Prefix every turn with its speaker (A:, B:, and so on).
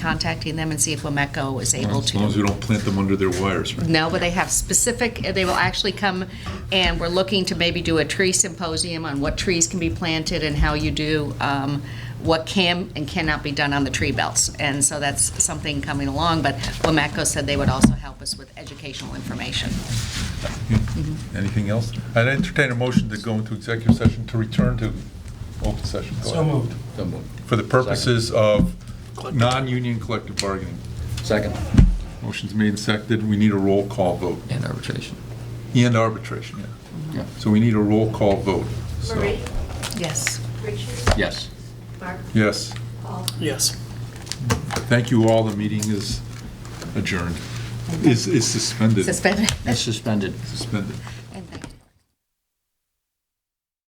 A: contacting them and see if Wameco is able
B: As long as we
A: to.
B: don't plant them under their wires, right?
A: No, but they have specific, they will actually come, and we're looking to maybe do a tree symposium on what trees can be planted and how you do, um, what can and cannot be done on the tree belts. And so that's something coming along, but Wameco said they would also help us with educational information.
C: Anything else? I'd entertain a motion to go into executive session to return to open session. Go
D: So
C: ahead.
D: moved.
E: So moved.
C: For the purposes of non-union collective bargaining.
E: Second.
C: Motion's made and seconded. We need a roll call vote
E: And arbitration.
C: and arbitration. yeah.
E: Yeah.
C: So we need a roll call vote. So,
F: Marie,
A: Yes.
F: Richard,
E: Yes.
F: Mark,
C: Yes.
F: Paul.
D: Yes.
C: Thank you all. The meeting is adjourned. Is, is suspended.
A: Suspended.
E: It's suspended.
C: Suspended.